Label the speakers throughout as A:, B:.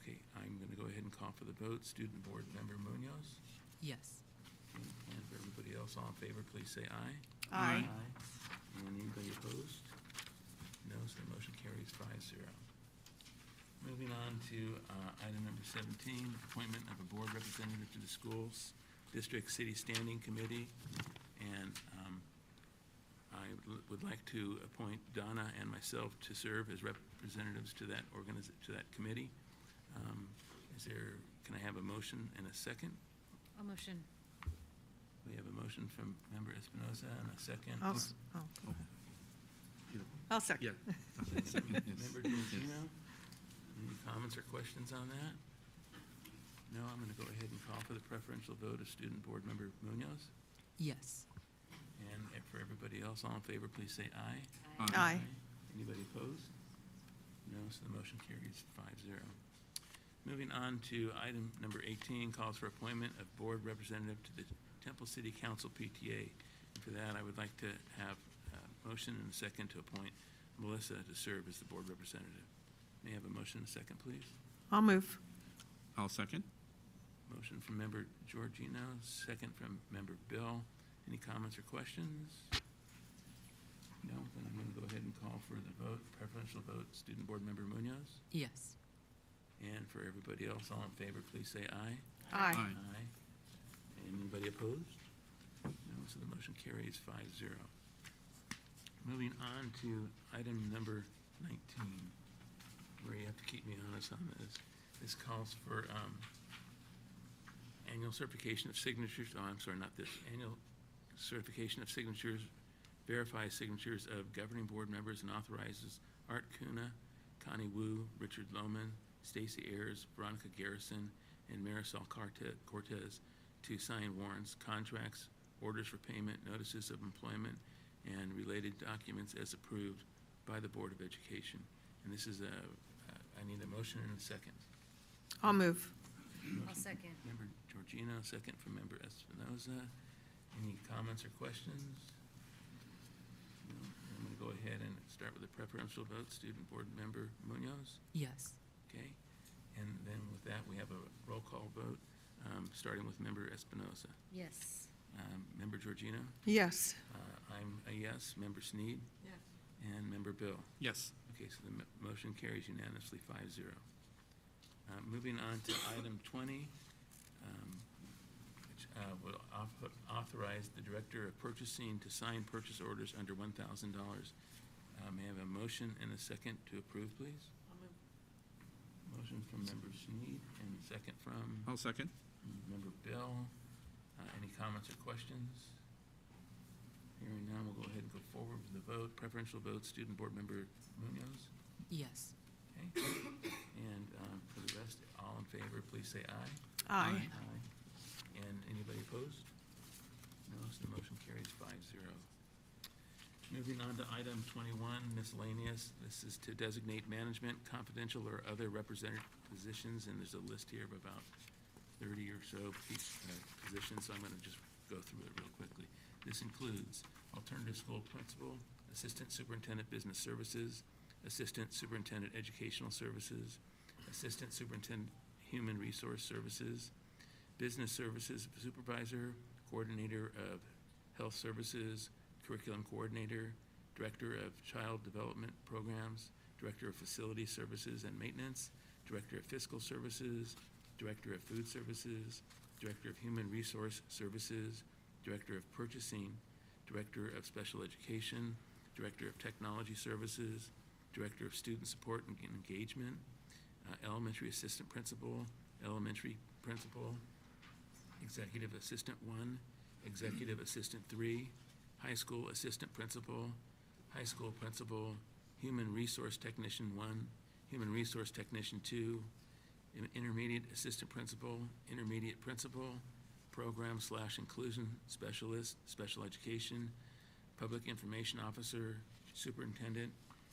A: Okay, I'm going to go ahead and call for the vote. Student Board Member Munoz,
B: Yes.
A: and for everybody else, all in favor, please say aye.
C: Aye.
A: And anybody opposed? No, so the motion carries five zero. Moving on to uh, item number 17, appointment of a board representative to the schools, district city standing committee. And um, I would l- would like to appoint Donna and myself to serve as representatives to that organiz, to that committee. Um, Is there, can I have a motion and a second?
B: I'll motion.
A: We have a motion from member Espinoza and a second.
C: I'll, s- oh, go ahead. I'll second.
A: Member Georgino, any comments or questions on that? No, I'm going to go ahead and call for the preferential vote of student board member Munoz.
B: Yes.
A: And for everybody else, all in favor, please say aye.
C: Aye.
A: Anybody opposed? No, so the motion carries five zero. Moving on to item number 18, calls for appointment of board representative to the Temple City Council PTA. And For that, I would like to have a motion and a second to appoint Melissa to serve as the board representative. May I have a motion and a second, please?
C: I'll move.
D: I'll second.
A: Motion from member Georgino, second from member Bill. Any comments or questions? No, then I'm going to go ahead and call for the vote, preferential vote, student board member Munoz.
B: Yes.
A: And for everybody else, all in favor, please say aye.
C: Aye.
D: Aye.
A: Anybody opposed? No, so the motion carries five zero. Moving on to item number nineteen, where you have to keep me honest on this. This calls for, um, annual certification of signatures, oh, I'm sorry, not this, annual certification of signatures, verifies signatures of governing board members and authorizes Art Kuna, Connie Wu, Richard Lohman, Stacy Ayers, Veronica Garrison, and Marisol Carte- Cortez to sign warrants, contracts, orders for payment, notices of employment, and related documents as approved by the Board of Education. And this is a, a- I need a motion and a second.
C: I'll move.
B: I'll second.
A: Member Georgino, second from Member Espinoza. Any comments or questions? No. I'm going to go ahead and start with the preferential vote, Student Board Member Munoz,
B: Yes.
A: okay? And then with that, we have a roll call vote, um, starting with Member Espinoza.
B: Yes.
A: Um, Member Georgino?
C: Yes.
A: Uh, I'm a yes. Member Sneed?
B: Yes.
A: And Member Bill?
D: Yes.
A: Okay, so the mo- motion carries unanimously, five zero. Uh, Moving on to item twenty, um, which uh, will auth- authorize the Director of Purchasing to sign purchase orders under one thousand dollars. Uh, May I have a motion and a second to approve, please? Motion from Member Sneed and second from
D: I'll second.
A: Member Bill. Uh, Any comments or questions? Hearing none, we'll go ahead and go forward with the vote. Preferential vote, Student Board Member Munoz?
B: Yes.
A: Okay, and um, for the rest, all in favor, please say aye.
C: Aye.
D: Aye.
A: And anybody opposed? No, so the motion carries five zero. Moving on to item twenty-one, miscellaneous. This is to designate management, confidential or other represented positions, and there's a list here of about thirty or so pe- uh, positions, so I'm gonna just go through it real quickly. This includes alternative school principal, assistant superintendent business services, assistant superintendent educational services, assistant superintendent human resource services, Business Services Supervisor, Coordinator of Health Services, Curriculum Coordinator, Director of Child Development Programs, Director of Facility Services and Maintenance, Director of Fiscal Services, Director of Food Services, Director of Human Resource Services, Director of Purchasing, Director of Special Education, Director of Technology Services, Director of Student Support and Engagement, uh, Elementary Assistant Principal, Elementary Principal, Executive Assistant One, Executive Assistant Three, High School Assistant Principal, High School Principal, Human Resource Technician One, Human Resource Technician Two, in- Intermediate Assistant Principal, Intermediate Principal, Program slash Inclusion Specialist, Special Education, Public Information Officer, Superintendent,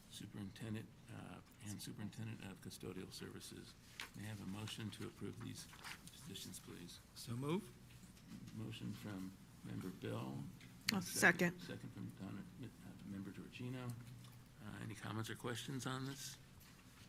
A: Superintendent, uh, and Superintendent of Custodial Services. May I have a motion to approve these positions, please?
D: So move.
A: Motion from member Bill.
C: I'll
A: Second from Donna, uh, member Georgino. Uh, Any comments or questions on this?